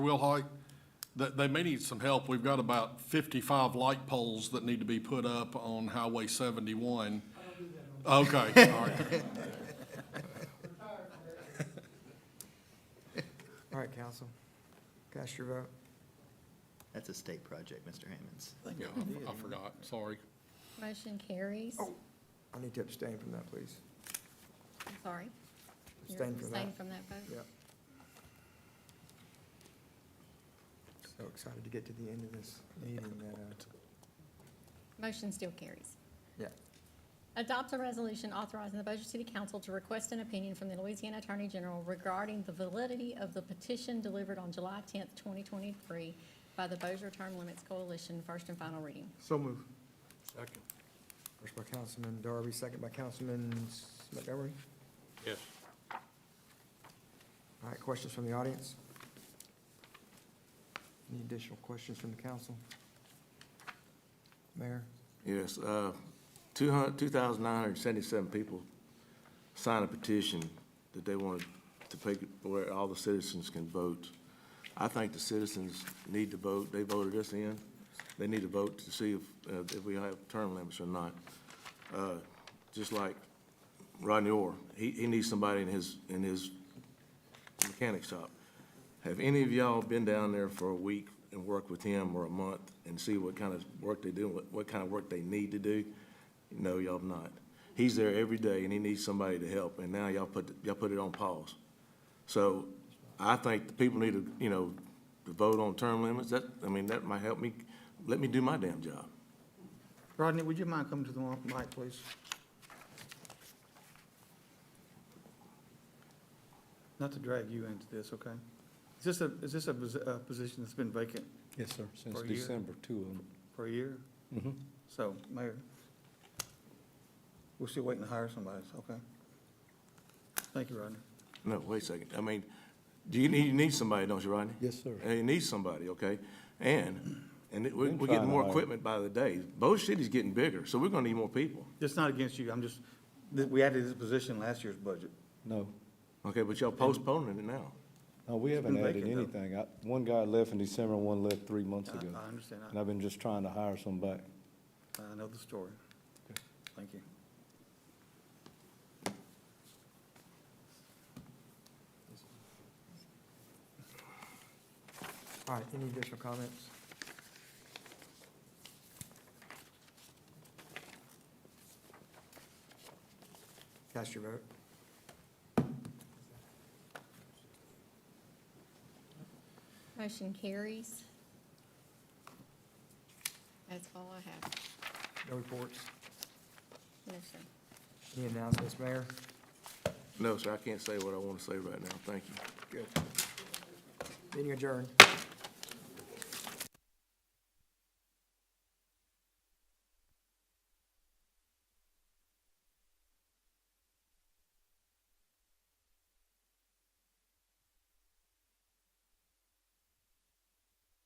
Will Hoyt, they, they may need some help. We've got about fifty-five light poles that need to be put up on Highway seventy-one. Okay, all right. All right, council, cast your vote. That's a state project, Mr. Hammond's. Yeah, I- I forgot, sorry. Motion carries. Oh. I need to abstain from that, please. I'm sorry. You're Abstain from that. Abstain from that vote. Yep. So excited to get to the end of this meeting that, uh, Motion still carries. yeah. Adopt a resolution authorizing the Bossier City Council to request an opinion from the Louisiana Attorney General regarding the validity of the petition delivered on July tenth, twenty twenty-three by the Bossier Term Limits Coalition, first and final reading. So move. Second. First by Councilman Darby, second by Councilman S- Montgomery. Yes. All right, questions from the audience? Any additional questions from the council? Mayor? Yes, uh, 200 2,977 people signed a petition that they wanted to pick where all the citizens can vote. I think the citizens need to vote. They voted us in. They need to vote to see if, uh, if we have term limits or not. Uh, Just like Rodney Orr, he, he needs somebody in his, in his mechanic shop. Have any of y'all been down there for a week and worked with him or a month and see what kind of work they do, what, what kind of work they need to do? No, y'all have not. He's there every day and he needs somebody to help, and now y'all put, y'all put it on pause. So I think the people need to, you know, to vote on term limits. That, I mean, that might help me, let me do my damn job. Rodney, would you mind coming to the mic, please? Not to drag you into this, okay? Is this a, is this a, posi- a position that's been vacant Yes, sir, Mm-hmm. since For a year? December, two of them. for a year? So, Mayor, we're still waiting to hire somebody, so, okay? Thank you, Rodney. No, wait a second. I mean, do you need, you need somebody, don't you, Rodney? Yes, sir. And you need somebody, okay? And, and it- we're, Been we're trying getting to more hire. equipment by the day. Both cities getting bigger, so we're gonna need more people. It's not against you, I'm just, th- we added this position last year's budget. No, Okay, but y'all postponing it now. no, we haven't been added vacant, though. anything. I- One guy left in December, and one left three months I, ago. I understand, And I've been just trying to hire some back. I, I know the story. Thank you. All right, any additional comments? Cast your vote. Motion carries. That's all I have. No reports. No, sir. Any announcements, Mayor? No, sir, I can't say what I wanna say right now. Thank you. Good. Meeting adjourned.